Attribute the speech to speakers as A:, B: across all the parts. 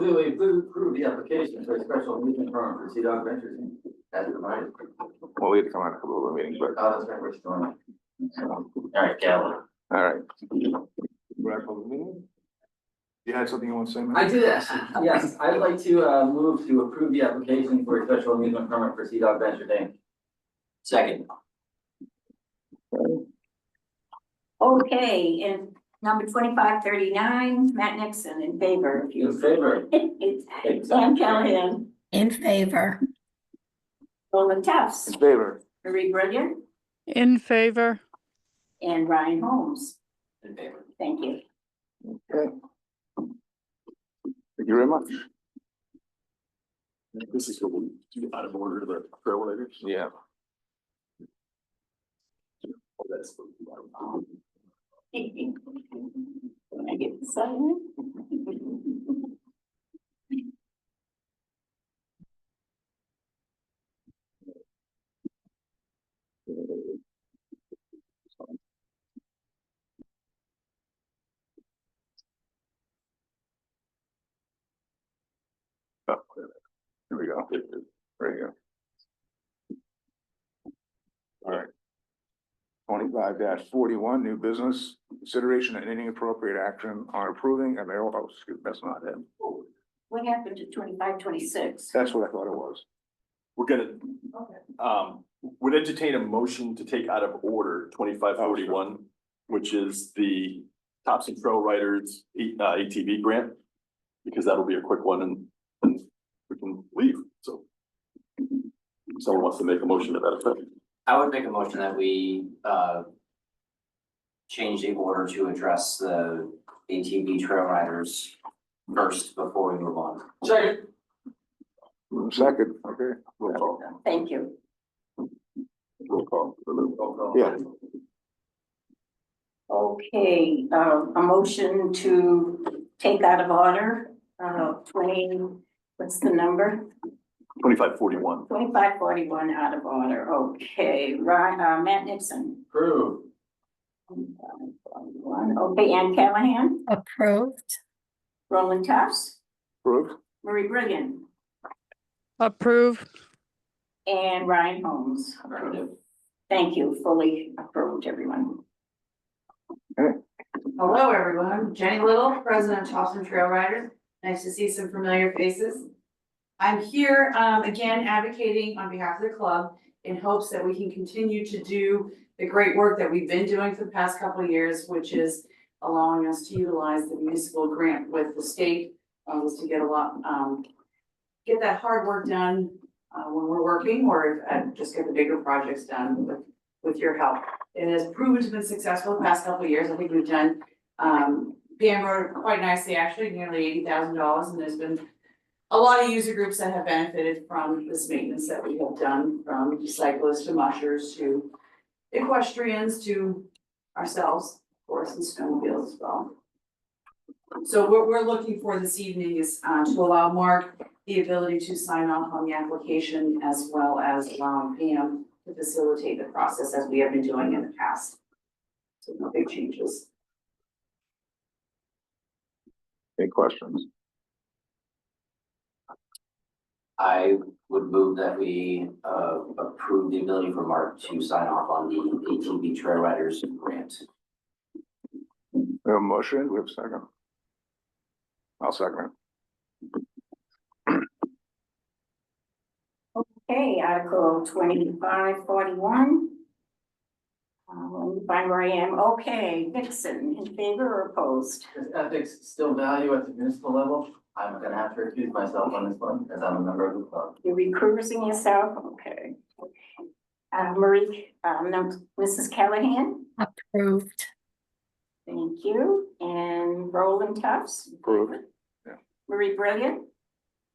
A: Do we approve approve the application for a special meeting permit for Sea Dog Ventures as provided?
B: Well, we had to come out a couple of meetings, but,
A: Oh, that's right, we're still on. All right, Gavin.
B: all right.
C: You had something you want to say?
A: I did actually, yes, I'd like to uh move to approve the application for a special amusement permit for Sea Dog Venture Day. Second.
D: Okay, and number twenty-five thirty-nine, Matt Nixon in favor of
A: In
D: you.
A: favor?
D: It's Sam Callahan,
E: In favor.
D: Roland Tufts,
B: In favor.
D: Marie Brilliant,
F: In favor,
D: and Ryan Holmes.
A: In favor.
D: Thank you.
B: Okay. Thank you very much.
C: This is out of order, the trailblazers. Oh,
B: Yeah.
D: Can I get the sign?
B: Oh, Oh, There we go. There you go. All right. Twenty-five forty-one, new business, consideration and any appropriate action on approving a mayoral, oh, excuse, that's not it.
D: What happened to twenty-five, twenty-six?
B: That's what I thought it was.
C: We're gonna, um, would entertain a motion to take out of order twenty-five forty-one, which is the Thompson Trail Riders E- uh, ATV grant. Because that'll be a quick one and, and we can leave, so. Someone wants to make a motion to that effect.
G: I would make a motion that we uh. Change the order to address the ATV trail riders first before we move on.
A: Second.
B: Second, okay,
C: Roll call.
D: Thank you.
B: roll call.
A: Roll call.
B: Yeah.
D: Okay, uh, a motion to take out of order, uh, twenty, what's the number?
C: Twenty-five forty-one.
D: Twenty-five forty-one out of order, okay, Ryan, uh, Matt Nixon.
A: Approve.
D: 2541. Okay, Ann Callahan,
E: Approved.
D: Roland Tufts,
B: Approved?
D: Marie Brilliant,
F: approve,
D: and Ryan Holmes.
A: Affirmative.
D: Thank you, fully approved, everyone.
H: Hello, everyone. Jenny Little, President of Charleston Trail Riders. Nice to see some familiar faces. I'm here um, again advocating on behalf of the club in hopes that we can continue to do the great work that we've been doing for the past couple of years, which is allowing us to utilize the municipal grant with the state, um, was to get a lot, um, get that hard work done uh, when we're working or uh, just get the bigger projects done with, with your help. It has proven to be successful the past couple of years. I think we've done um, Bam wrote quite nicely, actually, nearly eighty thousand dollars, and there's been a lot of user groups that have benefited from this maintenance that we have done, from cyclists to mushers to equestrians to ourselves, of course, and snowmobiles as well. So what we're looking for this evening is uh, to allow Mark the ability to sign off on the application as well as allowing Pam to facilitate the process as we have been doing in the past. So no big changes.
B: Any questions?
G: I would move that we uh approve the ability for Mark to sign off on the ATV trail riders grant.
B: We have a motion, we have a second. I'll second
D: Okay, Article twenty-five forty-one. Uh, let me find where I am, okay, Nixon, in favor or opposed?
A: Does ethics still value at the municipal level? I'm gonna have to recuse myself on this one as I'm a member of the club.
D: You're recruiting yourself, okay. Uh, Marie, um, no, Mrs. Callahan,
E: Approved.
D: thank you, and Roland Tufts,
B: it. Approved?
D: Marie Brilliant,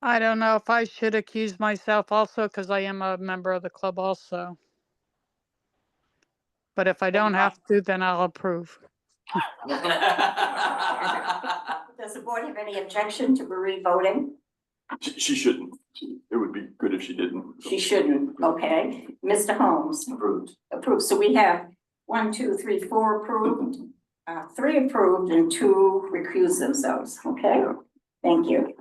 F: I don't know if I should accuse myself also because I am a member of the club also. But if I don't have to, then I'll approve.
D: does the board have any objection to Marie voting?
C: She, she shouldn't. It would be good if she didn't.
D: She shouldn't, okay, Mr. Holmes,
G: Approved.
D: approved, so we have one, two, three, four approved, uh, three approved and two recuse themselves, okay? Thank you.